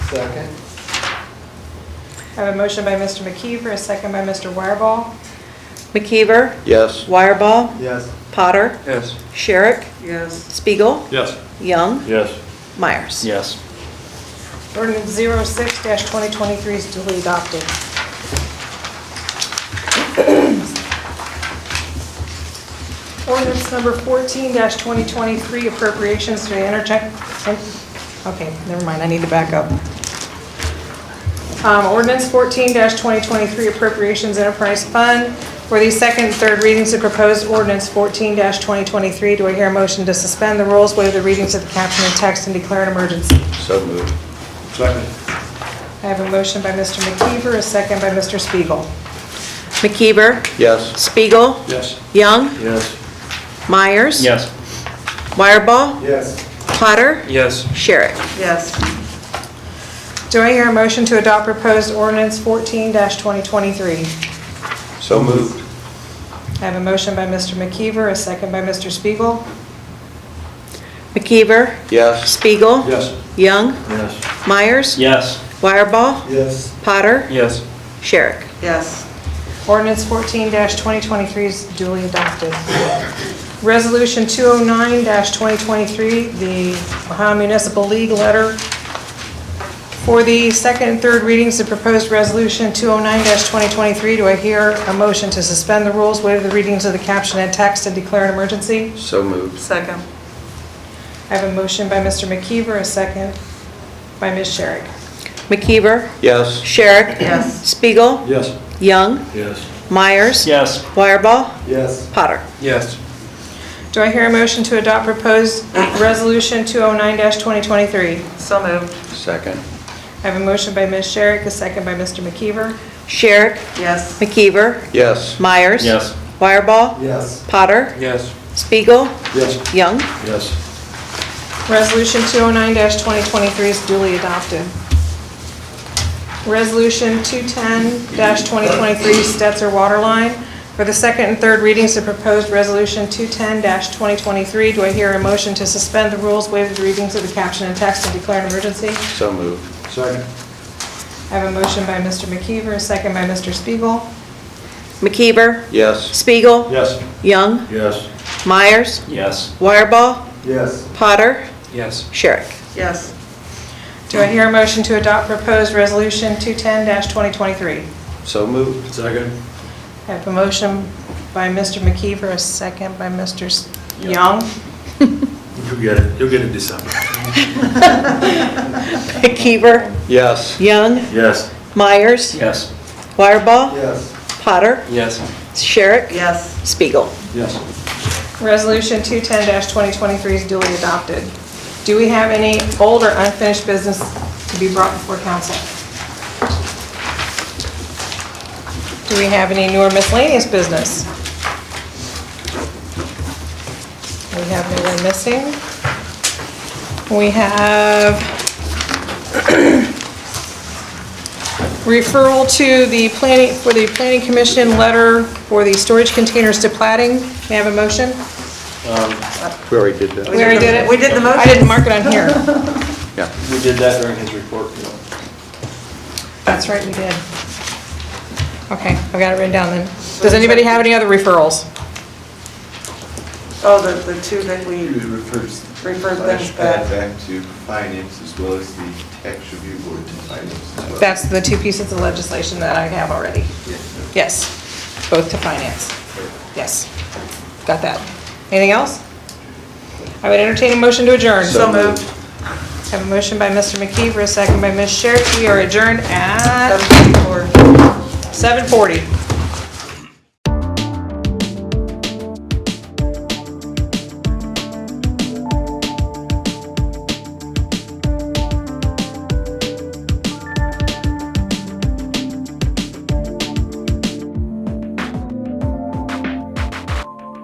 Second. I have a motion by Mr. McKeever, a second by Mr. Wireball. McKeever, Yes. Wireball, Yes. Potter, Yes. Sherrick, Yes. Spiegel, Yes. Young, Yes. Myers. Yes. Ordinance 06-2023 is duly adopted. Ordinance number 14-2023 appropriations to the intercheck, okay, never mind, I need to back up. Um, Ordinance 14-2023 Appropriations Enterprise Fund for the second and third readings of proposed ordinance 14-2023. Do I hear a motion to suspend the rules, waive the readings of the caption and text, and declare an emergency? So moved. Second. I have a motion by Mr. McKeever, a second by Mr. Spiegel. McKeever, Yes. Spiegel, Yes. Young, Yes. Myers. Yes. Wireball, Yes. Potter, Yes. Sherrick. Yes. Do I hear a motion to adopt proposed ordinance 14-2023? So moved. I have a motion by Mr. McKeever, a second by Mr. Spiegel. McKeever, Yes. Spiegel. Yes. Young, Yes. Myers. Yes. Wireball, Yes. Potter, Yes. Sherrick. Yes, Ordinance 14-2023 is duly adopted. Resolution 209-2023, the Ohio Municipal League letter for the second and third readings of proposed resolution 209-2023. Do I hear a motion to suspend the rules, waive the readings of the caption and text, and declare an emergency? So moved. second, I have a motion by Mr. McKeever, a second by Ms. Sherrick. McKeever, Yes. Sherrick. Yes. Spiegel, Yes. Young, Yes. Myers. Yes. Wireball, Yes. Potter. Yes. Do I hear a motion to adopt proposed resolution 209-2023? so moved, Second. I have a motion by Ms. Sherrick, a second by Mr. McKeever. Sherrick, yes, McKeever, Yes. Myers. Yes. Wireball, Yes. Potter, Yes. Spiegel, Yes. Young, Yes. Resolution 209-2023 is duly adopted. Resolution 210-2023 Stetzer Water Line. For the second and third readings of proposed Resolution 210-2023, do I hear a motion to suspend the rules, waive the readings of the caption and text, and declare an emergency? So moved. Second. I have a motion by Mr. McKeever, a second by Mr. Spiegel. McKeever, Yes. Spiegel, Yes. Young, Yes. Myers, Yes. Wireball, Yes. Potter, Yes. Sherrick. yes, Do I hear a motion to adopt proposed Resolution 210-2023? So moved. Second. I have a motion by Mr. McKeever, a second by Mr. S- Young. You get it. You'll get it December. McKeever, Yes. Young, Yes. Myers, Yes. Wireball, Yes. Potter, Yes. Sherrick, yes, Spiegel. Yes. Resolution 210-2023 is duly adopted. Do we have any old or unfinished business to be brought before council? Do we have any newer miscellaneous business? We have no one missing. We have referral to the planning, for the planning commission letter for the storage containers to plating. May I have a motion? We already did that. We already did it. We did the motion. I didn't mark it on here. Yeah. We did that during his report, you know. That's right, we did. Okay, I've got it written down then. Does anybody have any other referrals? oh, the, the two that we It refers referred slash things back back. back to finance as well as the tax review board to finance as well. That's the two pieces of legislation that I have already. Yeah, no. Yes, both to finance. Yes, got that. Anything else? I would entertain a motion to adjourn. So moved, Have a motion by Mr. McKeever, a second by Ms. Sherrick. We are adjourned at seven, four. 7:40.